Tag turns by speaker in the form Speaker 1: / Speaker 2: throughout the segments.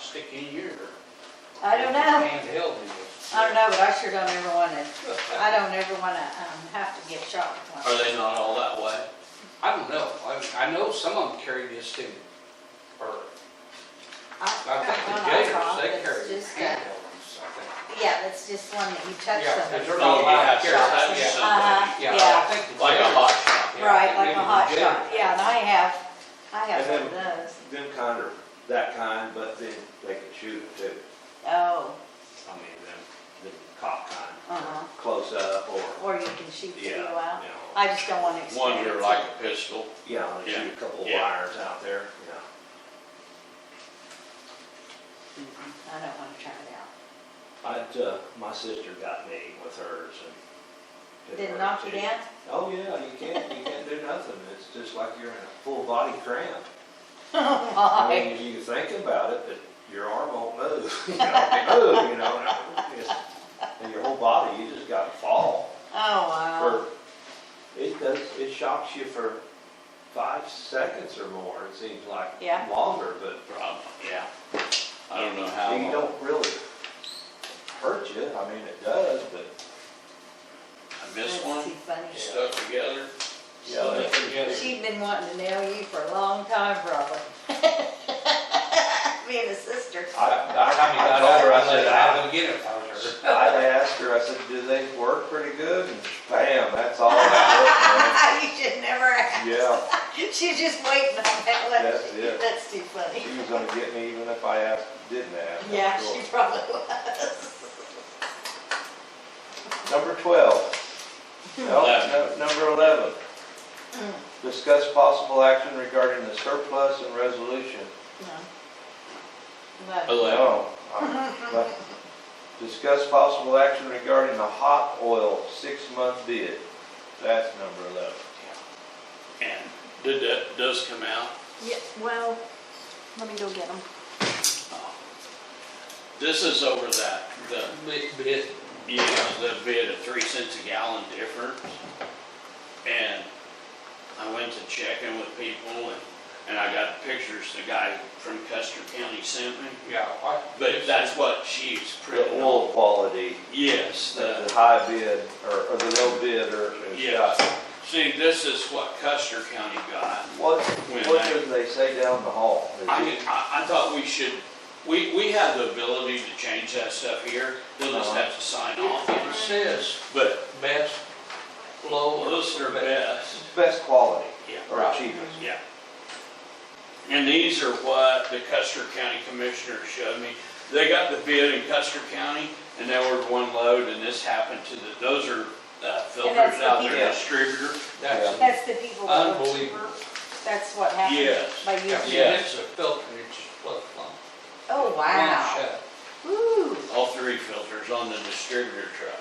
Speaker 1: sixteen years.
Speaker 2: I don't know.
Speaker 3: Handheld it is.
Speaker 2: I don't know, but I sure don't ever wanna, I don't ever wanna, um, have to get shot with one.
Speaker 1: Are they not all that way?
Speaker 3: I don't know. I, I know some of them carry this too. Or, I think the gators, they carry handheld ones, I think.
Speaker 2: Yeah, that's just one that you touch
Speaker 3: Yeah, 'cause
Speaker 2: something.
Speaker 3: they're
Speaker 1: Oh,
Speaker 3: not
Speaker 1: you
Speaker 3: allowed
Speaker 1: have
Speaker 3: to
Speaker 1: to
Speaker 3: carry
Speaker 1: touch
Speaker 3: that, yeah.
Speaker 2: Uh-huh,
Speaker 3: Yeah, I
Speaker 2: yeah,
Speaker 3: think. the
Speaker 1: Like a
Speaker 3: gators-
Speaker 1: hot shot.
Speaker 3: yeah, I
Speaker 2: right,
Speaker 3: think
Speaker 2: like
Speaker 3: maybe
Speaker 2: a
Speaker 3: the
Speaker 2: hot
Speaker 3: gators
Speaker 2: shot, yeah, and I have, I have
Speaker 4: And
Speaker 2: one of those.
Speaker 4: Them kind are that kind, but then they can shoot it too,
Speaker 2: Oh,
Speaker 4: I mean, them, the cop kind,
Speaker 2: uh-huh,
Speaker 4: close up or,
Speaker 2: or you can shoot the
Speaker 4: yeah, you
Speaker 2: arrow out.
Speaker 4: know.
Speaker 2: I just don't wanna experience
Speaker 1: One, you're
Speaker 2: it.
Speaker 1: like a pistol.
Speaker 4: Yeah, and they
Speaker 1: Yeah.
Speaker 4: shoot a couple of
Speaker 1: Yeah.
Speaker 4: wires out there, you know.
Speaker 2: I don't wanna try it out.
Speaker 4: I'd, uh, my sister got me with hers and.
Speaker 2: Did it
Speaker 4: hers
Speaker 2: knock you
Speaker 4: too.
Speaker 2: down?
Speaker 4: Oh, yeah, you can't, you can't do nothing, it's just like you're in a full body cramp.
Speaker 2: Oh,
Speaker 4: I
Speaker 2: my.
Speaker 4: mean, you think about it, but your arm won't move, you know, move, you know, and it's- and your whole body, you just gotta fall.
Speaker 2: Oh, wow.
Speaker 4: for, it does, it shocks you for five seconds or more, it seems like.
Speaker 2: Yeah.
Speaker 4: Longer, but
Speaker 1: Probably, yeah. I don't know how.
Speaker 4: you
Speaker 1: long.
Speaker 4: don't really hurt you, I mean, it does, but.
Speaker 1: I
Speaker 2: That's
Speaker 1: missed one.
Speaker 2: too funny.
Speaker 1: Stuck together.
Speaker 4: Yeah,
Speaker 3: good.
Speaker 4: that's-
Speaker 3: Together.
Speaker 2: She'd been wanting to nail you for a long time, probably. Being a sister.
Speaker 3: I
Speaker 4: I, I,
Speaker 3: mean, I
Speaker 4: I
Speaker 3: told
Speaker 4: told her, I
Speaker 3: said,
Speaker 4: said,
Speaker 3: I'd
Speaker 4: I,
Speaker 3: go get it if I was her.
Speaker 4: I asked her, I said, do they work pretty good? And bam, that's all that
Speaker 2: You should never ask.
Speaker 4: was, man. Yeah,
Speaker 2: She's just waiting on that one.
Speaker 4: That's it.
Speaker 2: That's too funny.
Speaker 4: she was gonna get me even if I asked, didn't ask. that's
Speaker 2: Yeah,
Speaker 4: cool.
Speaker 2: she probably was.
Speaker 4: Number twelve. No, no,
Speaker 1: Eleven.
Speaker 4: number eleven. Discuss possible action regarding the surplus and resolution.
Speaker 2: No. But
Speaker 1: Eleven.
Speaker 4: No. I- Discuss possible action regarding the hot oil six-month bid. That's number eleven.
Speaker 1: And did that, does come out?
Speaker 5: Yeah, well, let me go get them.
Speaker 1: Oh. This is over that, the bid, you know, the bid of three cents a gallon difference. And I went to check in with people and, and I got pictures the guy from Custer County sent me.
Speaker 3: Yeah. I-
Speaker 1: But that's what she's
Speaker 4: The
Speaker 1: printing on.
Speaker 4: oil quality,
Speaker 1: Yes,
Speaker 4: the
Speaker 1: the,
Speaker 4: the high bid or, or the low bid or. or-
Speaker 1: yeah. See, this is what Custer County got.
Speaker 4: What,
Speaker 1: When
Speaker 4: what
Speaker 1: I-
Speaker 4: did they say down the hall? Is
Speaker 1: I,
Speaker 4: it-
Speaker 1: I, I thought we should, we, we have the ability to change that stuff here. They'll just
Speaker 4: Uh-huh.
Speaker 1: have to sign off on
Speaker 3: It
Speaker 1: it.
Speaker 3: says
Speaker 1: But
Speaker 3: best, low, or
Speaker 1: those are best.
Speaker 4: Best quality
Speaker 1: Yeah.
Speaker 4: or
Speaker 3: Right.
Speaker 4: cheapest?
Speaker 1: Yeah. And these are what the Custer County Commissioner showed me. They got the bid in Custer County and they ordered one load and this happened to the, those are uh, filters
Speaker 2: the
Speaker 1: out there,
Speaker 4: people.
Speaker 1: distributor.
Speaker 3: that's
Speaker 2: That's the people. that work
Speaker 3: Unbelievable.
Speaker 2: for- That's what happened
Speaker 1: Yes.
Speaker 2: by
Speaker 3: Yeah,
Speaker 2: you.
Speaker 1: Yeah.
Speaker 3: it's a filter, it's just plug, plug.
Speaker 2: Oh, wow.
Speaker 3: Shut.
Speaker 2: Ooh,
Speaker 1: All three filters on the distributor truck.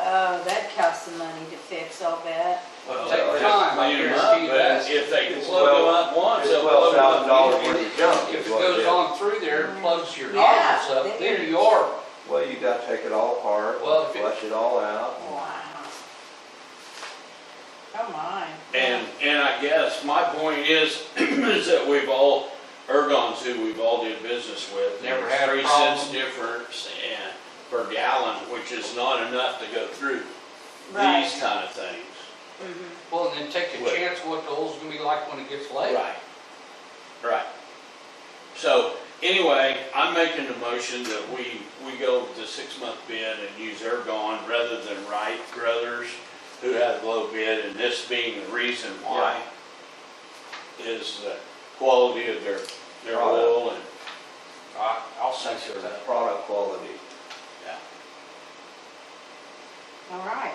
Speaker 2: oh, that costs some money to fix, I'll bet.
Speaker 3: Well,
Speaker 4: take
Speaker 3: take
Speaker 1: Just
Speaker 3: time, I
Speaker 1: clean 'em up,
Speaker 3: guarantee
Speaker 1: but
Speaker 3: that.
Speaker 1: If they can
Speaker 4: It's
Speaker 1: plug them up once,
Speaker 4: It's
Speaker 1: they'll plug
Speaker 4: twelve
Speaker 1: them up.
Speaker 4: thousand dollars
Speaker 1: anyway.
Speaker 4: worth of junk
Speaker 3: If
Speaker 4: is
Speaker 3: it
Speaker 4: what it
Speaker 3: goes
Speaker 4: is.
Speaker 3: on through there and plugs your
Speaker 2: Yeah,
Speaker 3: nozzles up,
Speaker 2: then
Speaker 3: then
Speaker 2: you're-
Speaker 3: you are,
Speaker 4: Well, you gotta take it all apart,
Speaker 3: Well, if it-
Speaker 4: flush it all
Speaker 1: Oh.
Speaker 4: out.
Speaker 2: Wow. Come on.
Speaker 1: And, and I guess my point is, is that we've all, Ergon's who we've all did business with.
Speaker 3: Never
Speaker 1: there's
Speaker 3: had a
Speaker 1: Three cents
Speaker 3: problem.
Speaker 1: difference and per gallon, which is not enough to go through
Speaker 2: Right.
Speaker 1: these kind of things.
Speaker 2: Mhm.
Speaker 3: well, and then take a
Speaker 1: What?
Speaker 3: chance what the oil's gonna be like when it gets late.
Speaker 1: Right. Right. So anyway, I'm making the motion that we, we go with the six-month bid and use Ergon rather than Wright Brothers, who had low bid, and this being the reason why is the quality of their, their
Speaker 4: Product.
Speaker 1: oil and,
Speaker 3: I, I'll
Speaker 4: Make
Speaker 3: second
Speaker 4: sure
Speaker 3: that.
Speaker 4: that product quality.
Speaker 1: yeah,
Speaker 2: All right.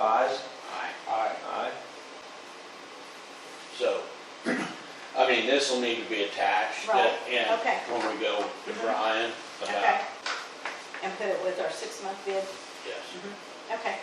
Speaker 4: Ayes?
Speaker 1: right.
Speaker 3: Aye.
Speaker 4: Aye.
Speaker 1: So, I mean, this will need to be attached. uh,
Speaker 2: Right,
Speaker 1: And
Speaker 2: okay.
Speaker 1: when we go to
Speaker 2: Mhm.
Speaker 1: Brian
Speaker 2: Okay.
Speaker 1: about,
Speaker 2: And put it with our six-month bid?
Speaker 1: yes.
Speaker 2: Okay.